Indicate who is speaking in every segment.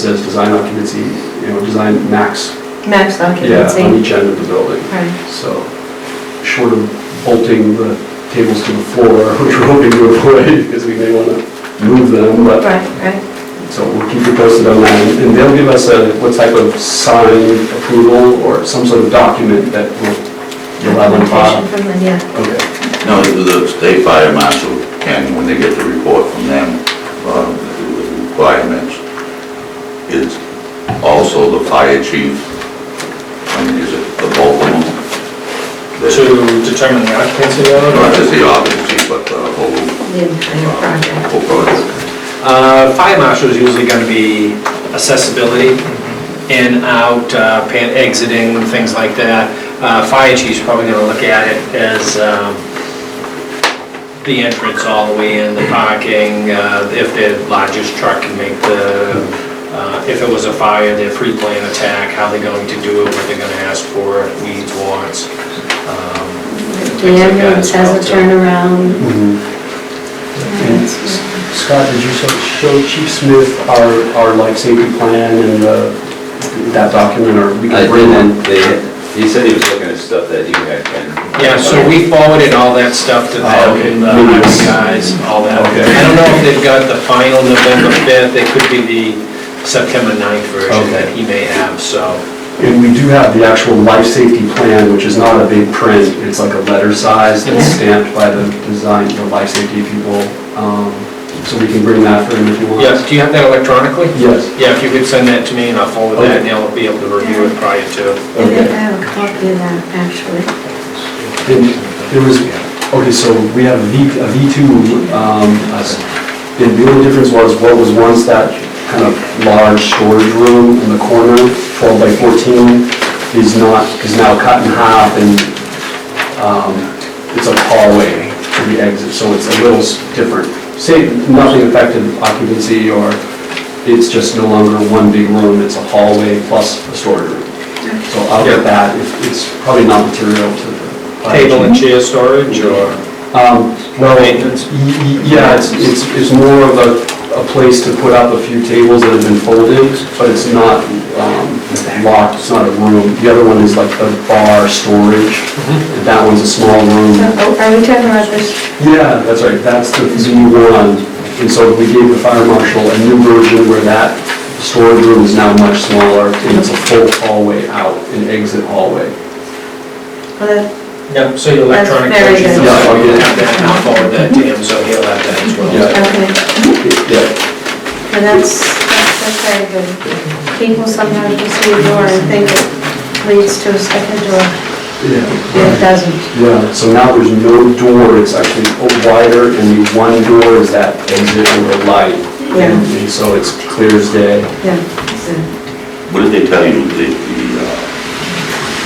Speaker 1: says design occupancy, you know, design max,
Speaker 2: Max
Speaker 1: yeah, on
Speaker 2: occupancy.
Speaker 1: each end of the building.
Speaker 2: Right.
Speaker 1: So, short of bolting the tables to the floor, which we're hoping to avoid, because we may want to move them, but
Speaker 2: Right, right.
Speaker 1: So we'll keep you posted on that, and- and they'll give us a, what type of sign approval or some sort of document that will you'll have on
Speaker 2: Documentation
Speaker 1: file.
Speaker 2: from the, yeah.
Speaker 1: Okay,
Speaker 3: No, the state fire marshal can, when they get the report from them, um, the requirements, is also the fire chief, I mean, is it the both of them?
Speaker 4: To determine the
Speaker 3: Not
Speaker 4: occupancy level?
Speaker 3: just the office chief, but the whole,
Speaker 2: The entire
Speaker 3: uh,
Speaker 2: project.
Speaker 3: whole project.
Speaker 4: Uh, Fire marshal is usually going to be accessibility, in, out, uh, pan- exiting, things like that. Uh, Fire chief's probably going to look at it as um, the entrance all the way in, the parking, uh, if the largest truck can make the, uh, if it was a fire, their pre-planned attack, how they're going to do it, what they're going to ask for, needs, wants. um,
Speaker 5: The ambulance has a turnaround.
Speaker 1: And S- S- Scott, did you show- show Chief Smith our, our life safety plan and uh, that document, or we
Speaker 6: I
Speaker 1: can bring one?
Speaker 6: didn't, they, he said he was looking at stuff that you had, uh, Ken.
Speaker 4: Yeah, so we forwarded all that stuff to
Speaker 1: Oh, okay.
Speaker 4: them, the highway guys, all that.
Speaker 1: Okay.
Speaker 4: I don't know if they've got the final November 5th, it could be the September 9th version that he may have, so.
Speaker 1: And we do have the actual life safety plan, which is not a big print, it's like a letter size that's stamped by the design, the life safety people. Um, So we can bring that for him if you want.
Speaker 4: Yeah, do you have that electronically?
Speaker 1: Yes.
Speaker 4: Yeah, if you could send that to me and I'll forward that and they'll be able to review it prior
Speaker 1: Oh,
Speaker 4: to.
Speaker 5: I think I have a copy of that, actually.
Speaker 1: And There was, okay, so we have a V, a V2, um, us- and the only difference was what was once that kind of large storage room in the corner, 12 by 14, is not, is now cut in half and, um, it's a hallway to the exit, so it's a little s- different. Same, nothing affected occupancy or, it's just no longer one big room, it's a hallway plus a storage room. So I'll get that, If- it's probably not material to the.
Speaker 4: Table and chair storage or?
Speaker 1: Um, Well, y-
Speaker 4: Maintenance?
Speaker 1: y- yeah, it's, it's it's more of a, a place to put up a few tables that have been folded, but it's not um, locked, it's not a room. The other one is like the bar storage, and that one's a small
Speaker 2: So
Speaker 1: room.
Speaker 2: oh, are we talking about this?
Speaker 1: Yeah, that's right, that's the Z1. And so we gave the fire marshal a new version where that storage room is now much smaller, and it's a full hallway out, an exit hallway.
Speaker 2: Well, that-
Speaker 4: Yeah, so your
Speaker 2: That's
Speaker 4: electronic
Speaker 2: very
Speaker 4: version.
Speaker 2: good.
Speaker 1: Yeah, I'll get it.
Speaker 4: Have that and I'll forward that to him, so he'll have that as well.
Speaker 1: Yeah.
Speaker 2: Okay,
Speaker 1: Yeah.
Speaker 2: well, that's, that's that's very good. People sometimes will see a door and think it leads to a second door,
Speaker 1: Yeah.
Speaker 2: and it doesn't.
Speaker 1: Yeah, so now there's no door, it's actually wider, and the one door is that exit under light.
Speaker 2: Yeah.
Speaker 1: And so it's clear as day.
Speaker 2: Yeah, so,
Speaker 3: What did they tell you the, the, uh,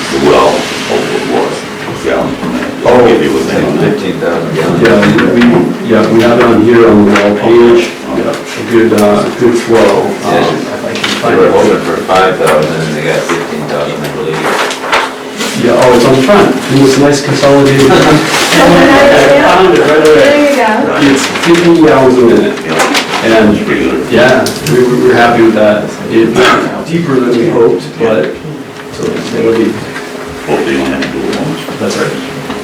Speaker 3: the well, what was, gallons per minute? Did
Speaker 4: Oh.
Speaker 3: they give you a thing on that?
Speaker 6: Fifteen thousand gallons.
Speaker 1: Yeah, we, yeah, we have it on here on the wall page, yeah, a good, uh, good flow. um, if I can
Speaker 6: They
Speaker 1: find
Speaker 6: were
Speaker 1: it.
Speaker 6: hoping for five thousand, and they got fifteen thousand, I believe.
Speaker 1: Yeah, oh, it's on the front, it was nice consolidated. I found it right away.
Speaker 2: there you go.
Speaker 1: It's fifty hours a minute, and
Speaker 3: It's pretty good.
Speaker 1: Yeah, we we were happy with that. It went deeper than we hoped, but, so it'll be,
Speaker 3: Hope they don't have to do it once.
Speaker 1: that's right.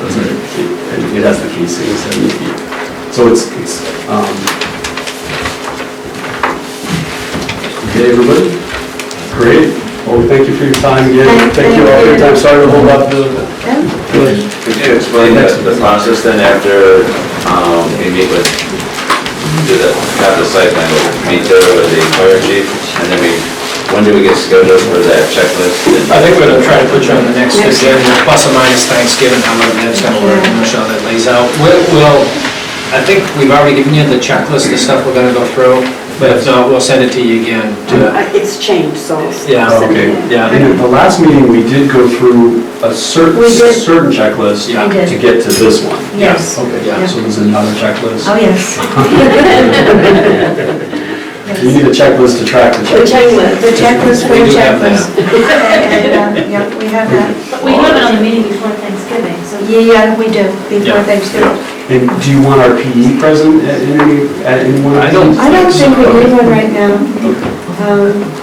Speaker 1: That's right. It- and It has the casing, seventy feet. So it's, it's, um... Okay, everybody? Great. Well, thank you for your time again. Thank
Speaker 2: Thank-
Speaker 1: you all for your time. Sorry to hold up the...
Speaker 6: Could you explain the, the process then after, um, we meet with, do the, have the site plan, meet the, with the fire chief, and then we, when do we get scheduled for that checklist?
Speaker 4: I think we're gonna try to put you on the next agenda, plus or minus Thanksgiving, how long that's gonna work, and show that lays out. We'll, we'll- I think we've already given you the checklist, the stuff we're gonna go through, but if not, we'll send it to you again. to-
Speaker 7: Uh, It's changed, so.
Speaker 4: Yeah,
Speaker 1: Okay.
Speaker 4: yeah,
Speaker 1: And at the last meeting, we did go through a certain,
Speaker 2: We did.
Speaker 1: certain checklist
Speaker 4: Yeah. We
Speaker 2: did.
Speaker 1: to get to this one.
Speaker 2: Yes.
Speaker 1: Okay,
Speaker 4: Yeah.
Speaker 1: so there's another checklist.
Speaker 2: Oh, yes.
Speaker 1: You need a checklist to track the
Speaker 7: The
Speaker 1: checklist.
Speaker 7: checklist.
Speaker 2: The checklist,
Speaker 4: We
Speaker 2: we
Speaker 4: do have
Speaker 2: checklist. And, uh, Yeah, we have that.
Speaker 5: But we have it on the meeting before Thanksgiving, so
Speaker 2: Yeah, yeah, we do, before
Speaker 4: Yeah.
Speaker 2: Thanksgiving.
Speaker 1: And do you want our PE present at any, at any one of
Speaker 4: I don't-
Speaker 1: these?
Speaker 2: I don't think we need one right now. Um,